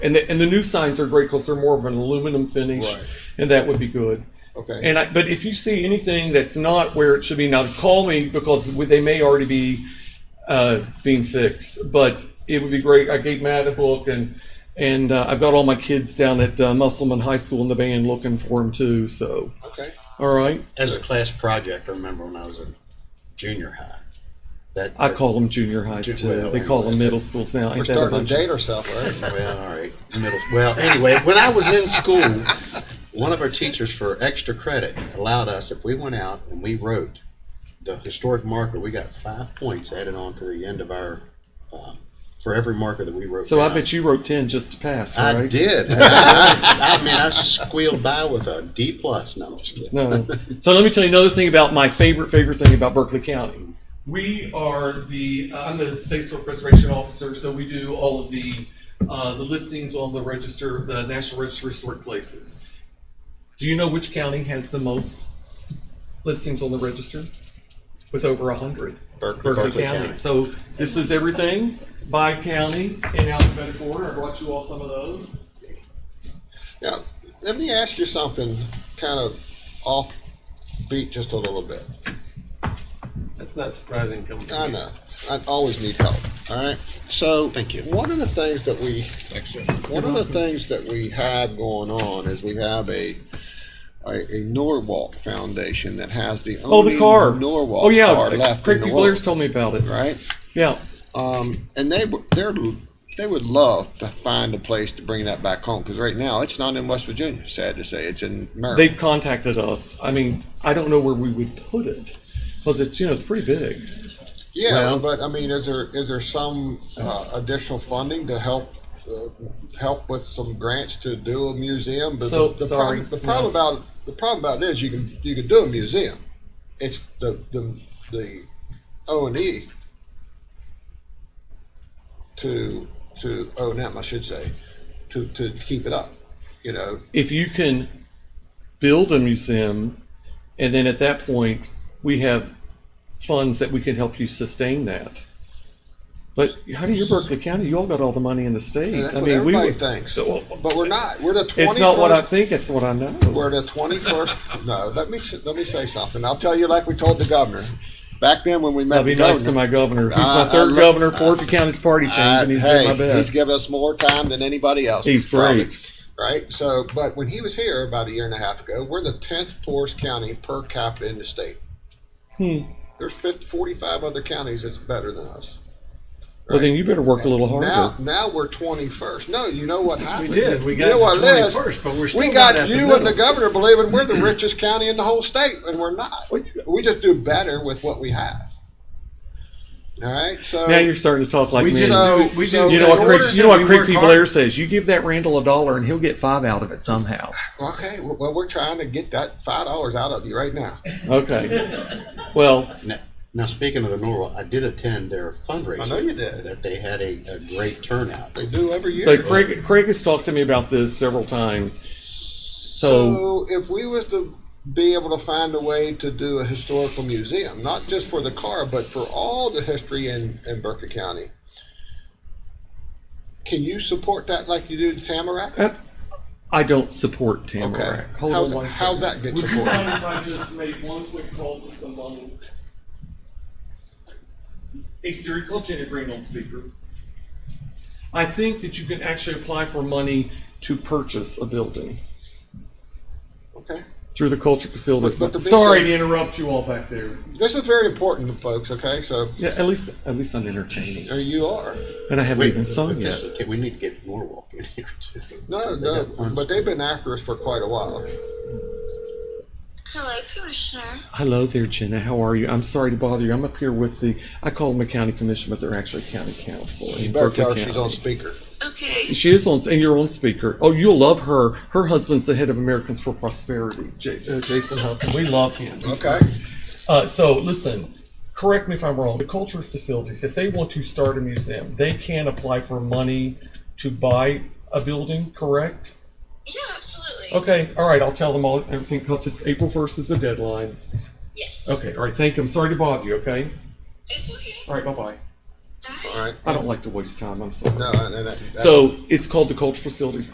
And the, and the new signs are great because they're more of an aluminum finish, Right. and that would be good. Okay, And I, but if you see anything that's not where it should be, now call me because we- they may already be uh, being fixed. But it would be great. I gave Matt a book, and and uh, I've got all my kids down at uh, Musselman High School in the band looking for them too. So okay. all right, As a class project, I remember when I was in junior high. That I call them junior highs too. They call them middle schools now. We're Ain't that a starting bunch to of- date ourselves, right? well, all right. Middle, well, anyway, when I was in school, one of our teachers for extra credit allowed us if we went out and we wrote the historic marker, we got five points added on to the end of our um, for every marker that we wrote. So I down. bet you wrote ten just to pass, right? I did. I, I mean, I squealed by with a D plus. No, I'm just kidding. No. Um, So let me tell you another thing about my favorite, favorite thing about Berkeley County. We are the, uh, I'm the state store preservation officer, so we do all of the, uh, the listings on the register, the National Register of Historic Places. Do you know which county has the most listings on the register? With over a hundred. Berkeley- Berkeley Berkeley County. County. So this is everything by county in alphabetical order. I brought you all some of those. Now, let me ask you something kind of off beat just a little bit. That's not surprising coming I from you. know. I always need help. All right. So, thank you. One of the things that we one of the things that we have going on is we have a a, a Norwalk Foundation that has the Oh, only the car. Norwalk Oh, yeah. car left in Craig the P. world, Blair's told me about it. right? Yeah. Um, and they were- they're they would love to find a place to bring that back home because right now it's not in West Virginia. Sad to say, it's in Maryland. They've contacted us. I mean, I don't know where we would put it because it's, you know, it's pretty big. Yeah, but I mean, is there is there some uh, additional funding to help uh, help with some grants to do a museum? But So, the, the sorry, problem, the no. problem about the problem about it is you can you can do a museum. It's the the the O and E to to O and M, I should say, to to keep it up. You know, If you can build a museum, and then at that point, we have funds that we can help you sustain that. But how do you, Berkeley County, you all got all the money in the state. and that's I what mean, we everybody would- thinks. Well, But we're not. We're the twenty. It's not what I think, it's what I know. We're the twenty-first, no, let me, let me say something. I'll tell you like we told the governor. Back then when we met That'd the be nice to governor. my governor. He's my I- I third look- governor, Fork County's party change, I- and he's doing my He's best. given us more time than anybody else. He's probably, great. Right? So, but when he was here about a year and a half ago, we're the tenth poorest county per capita in the state. There's fif- forty-five other counties that's better than us. Well, then you better work a little Now, harder. now we're twenty-first. No, you know what happened? did. We You got know to what it is? 21st, but we're still We not got at the you and the middle. governor believing we're the richest county in the whole state, and we're not. Well, you- We just do better with what we have. All right, so Now you're starting to talk like We me. just So- do, we so- do You know In what? order Craig, to- you know what we Craig work P. hard. Blair says. You give that Randall a dollar, and he'll get five out of it somehow. okay. Well, we're trying to get that five dollars out of you right now. Okay. Well, Now, now speaking of the Norwalk, I did attend their fundraiser. I know you did. That they had a, a great turnout. They do every year. but Craig, Craig has talked to me about this several times. So, So if we was to be able to find a way to do a historical museum, not just for the car, but for all the history in, in Burke County, can you support that like you do the Tamarack? I don't support Okay. Tamarack. Hold How's, on one how's second. that get Would you mind supported? if I just made one quick call to someone? Hey Siri, call Jenny Green on speaker. I think that you can actually apply for money to purchase a building. Okay. through the culture facilities. But- but the big Sorry thing- to interrupt you all back there. This is very important, folks. Okay, so Yeah, at least at least I'm entertaining, there you are. and I haven't even but sung yet. this- okay, we need to get Norwalk in here too. No, They no, got funds. but they've been after us for quite a while. Hello, Commissioner. Hello there, Jenna. How are you? I'm sorry to bother you. I'm up here with the I call them a county commission, but they're actually county council. in You better Berkeley tell her she's County. on speaker. Okay, She is on, and you're on speaker. Oh, you'll love her. Her husband's the head of Americans for Prosperity, J- uh, Jason Huffman. We love him. Okay. Uh, so listen, correct me if I'm wrong. The culture facilities, if they want to start a museum, they can apply for money to buy a building. Correct? yeah, absolutely. Okay, all right, I'll tell them all, everything, because it's April first is the deadline. Yes, Okay, all right, thank you, I'm sorry to bother you, okay? it's okay. All right, bye-bye. Bye. All right. I don't like to waste time, I'm sorry. No, no, no. So it's called the Cultural Facilities